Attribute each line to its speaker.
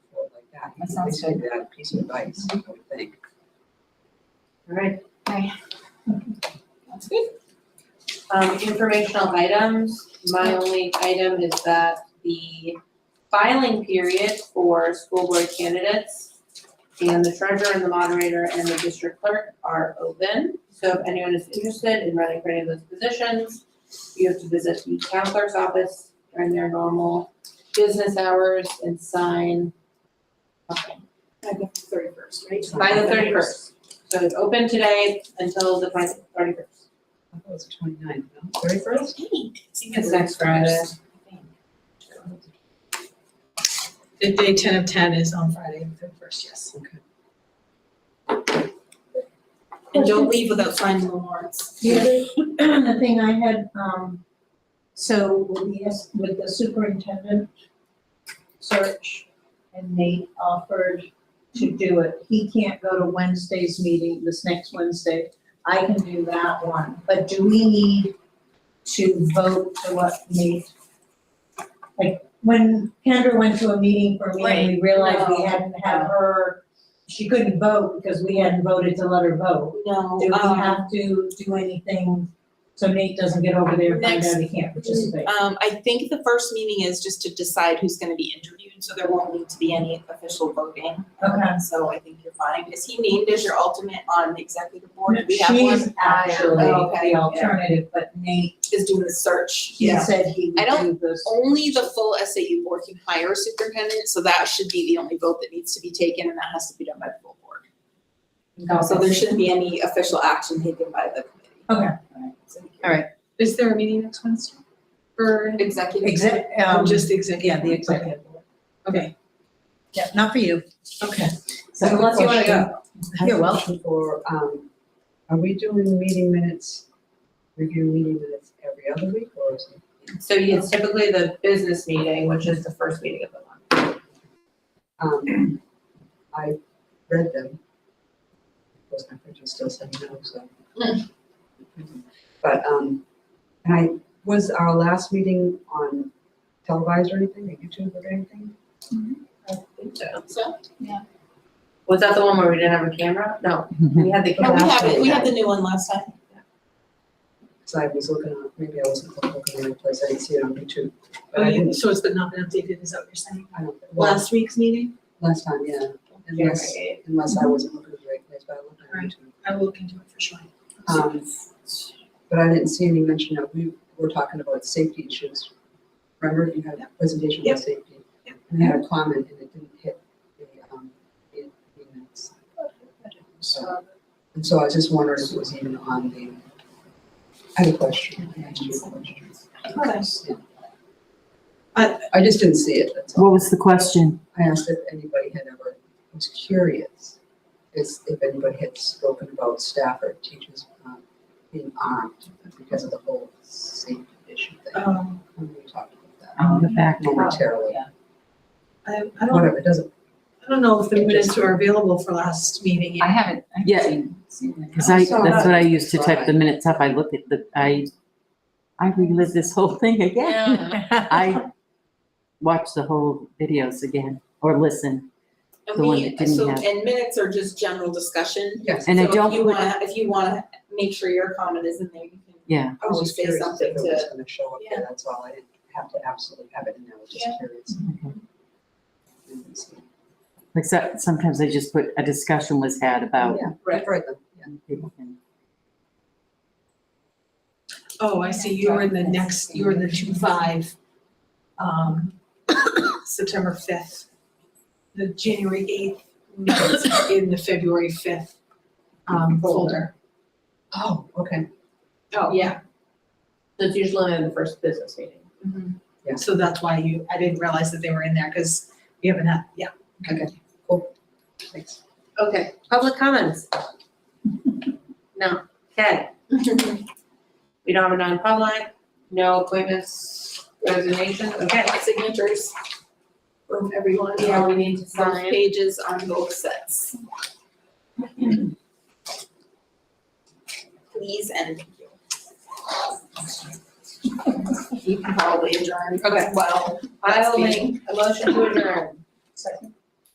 Speaker 1: I
Speaker 2: That sounds
Speaker 1: think That piece of advice, I would think.
Speaker 3: All right,
Speaker 2: That's good.
Speaker 3: um, informational items, my only item is that the filing period for school board candidates and the treasurer and the moderator and the district clerk are open, so if anyone is interested in running for any of those positions, you have to visit the town clerk's office during their normal business hours and sign. Okay,
Speaker 4: By the thirty-first, right?
Speaker 3: By the thirty-first, so it's open today until the twenty, thirty-first.
Speaker 1: I thought it was twenty-ninth, no, thirty-first?
Speaker 3: It's next Friday.
Speaker 2: The day ten of ten is on Friday, the first, yes.
Speaker 1: Okay.
Speaker 2: And don't leave without signing the warrants.
Speaker 5: The other, the thing I had, um, so with the, S- with the superintendent search, and Nate offered to do it, he can't go to Wednesday's meeting, this next Wednesday, I can do that one, but do we need to vote to what Nate? Like, when Kendra went to a meeting for me, and we realized we
Speaker 3: Right, no.
Speaker 5: hadn't had her, she couldn't vote because we hadn't voted to let her vote.
Speaker 3: No,
Speaker 5: Do we
Speaker 2: Um,
Speaker 5: have to do anything so Nate doesn't get over there and find out he can't participate?
Speaker 2: Um, I think the first meeting is just to decide who's gonna be interviewed, so there won't need to be any official voting.
Speaker 5: Okay.
Speaker 2: So I think you're fine. Is he named as your ultimate on the executive board? Do we have one?
Speaker 5: She's actually
Speaker 2: Oh, okay,
Speaker 5: the
Speaker 2: yeah.
Speaker 5: alternative, but Nate,
Speaker 2: Is doing the search.
Speaker 5: he said he
Speaker 2: I don't-
Speaker 5: would do this.
Speaker 2: Only the full SAU board can hire a superintendent, so that should be the only vote that needs to be taken, and that has to be done by the full board. So there shouldn't be any official action taken by the committee.
Speaker 5: Okay.
Speaker 2: All right.
Speaker 6: Is there a meeting next Wednesday? For,
Speaker 2: Executive.
Speaker 5: Exec,
Speaker 6: or
Speaker 5: um,
Speaker 6: just the executive?
Speaker 5: yeah, the executive.
Speaker 6: Okay.
Speaker 5: Yeah, not for you.
Speaker 6: Okay.
Speaker 1: So
Speaker 3: unless you wanna go.
Speaker 5: You're welcome.
Speaker 1: For, um, are we doing meeting minutes, review meeting minutes every other week or is it?
Speaker 3: So it's typically the business meeting, which is the first meeting of the month.
Speaker 1: Um, I read them. Of course, my printer's still saying no, so. But, um, and I, was our last meeting on televised or anything, or YouTube or anything?
Speaker 3: I think so.
Speaker 2: So,
Speaker 3: Was that the one where we didn't have a camera? Mm-hmm. No, we had the
Speaker 2: yeah,
Speaker 3: camera.
Speaker 2: oh, we have it, we had the new one last time.
Speaker 1: Cause I was looking on, maybe I wasn't looking in the right place, I didn't see it on YouTube, but
Speaker 6: Oh,
Speaker 1: I
Speaker 6: you,
Speaker 1: didn't,
Speaker 6: so it's been not been updated, is that what you're saying?
Speaker 1: I don't, well,
Speaker 6: Last week's meeting?
Speaker 1: last time, yeah,
Speaker 3: Camera
Speaker 1: unless,
Speaker 3: eight.
Speaker 1: unless I wasn't looking in the right place, but I looked on
Speaker 6: Right.
Speaker 1: YouTube.
Speaker 6: I will look into it for sure.
Speaker 1: Um, but I didn't see any mention of, we were talking about safety issues. Remember, you had a presentation
Speaker 6: Yep.
Speaker 1: on safety? And I had a comment and it didn't hit the, um, the the minutes. So, and so I was just wondering if it was even on the, I had a question. I asked you a question. I, I just didn't see it, that's all.
Speaker 7: What was the question?
Speaker 1: I asked if anybody had ever, I was curious, is if anybody had spoken about staff or teachers um, being armed because of the whole safety issue
Speaker 2: Oh.
Speaker 1: thing.
Speaker 6: Um,
Speaker 1: When we talked about
Speaker 7: Oh, the
Speaker 1: that
Speaker 7: fact.
Speaker 1: momentarily,
Speaker 6: I, I don't,
Speaker 1: whatever, it doesn't,
Speaker 6: I don't know if the minutes were available for last meeting. yet.
Speaker 2: haven't, I
Speaker 7: Yeah. Cause I, that's what I used to type the minutes up. I looked at the, I, I relived this whole thing again. I watched the whole videos again or listen.
Speaker 2: And
Speaker 7: The one
Speaker 2: we,
Speaker 7: that didn't
Speaker 2: so,
Speaker 7: have-
Speaker 2: and minutes are just general discussion.
Speaker 1: yes.
Speaker 7: And I
Speaker 2: So
Speaker 7: don't
Speaker 2: if you
Speaker 7: put-
Speaker 2: wanna, if you wanna make sure your comment is in there, you can.
Speaker 7: Yeah.
Speaker 1: I was
Speaker 2: always
Speaker 1: just
Speaker 2: say
Speaker 1: curious if
Speaker 2: something
Speaker 1: it was
Speaker 2: to,
Speaker 1: gonna show up there, that's all, I didn't have to absolutely have it in there, I was just
Speaker 2: Yeah.
Speaker 1: curious.
Speaker 7: Okay.
Speaker 1: I didn't see it.
Speaker 7: Like so- sometimes I just put, a discussion was had
Speaker 2: Oh.
Speaker 7: about.
Speaker 1: Yeah,
Speaker 2: Right.
Speaker 1: right, then, yeah.
Speaker 7: people can-
Speaker 6: Oh, I see, you were in the next, you were in the two five, um, September fifth, the January eighth, minutes in the February fifth, um, folder.
Speaker 1: Oh, okay,
Speaker 6: Oh, yeah,
Speaker 3: That's usually in the first business meeting.
Speaker 1: Yeah.
Speaker 6: so that's why you, I didn't realize that they were in there, because we haven't had, yeah.
Speaker 1: thanks.
Speaker 3: Okay, public comments? No, okay. We don't have a non-public, no appointments, resignation, okay.
Speaker 2: signatures from everyone,
Speaker 3: Yeah, we need to
Speaker 2: both
Speaker 3: sign.
Speaker 2: pages on both sets. Please and thank you. You can probably adjourn.
Speaker 3: Okay.
Speaker 2: Well,
Speaker 3: I'll make a motion to adjourn.
Speaker 5: Second.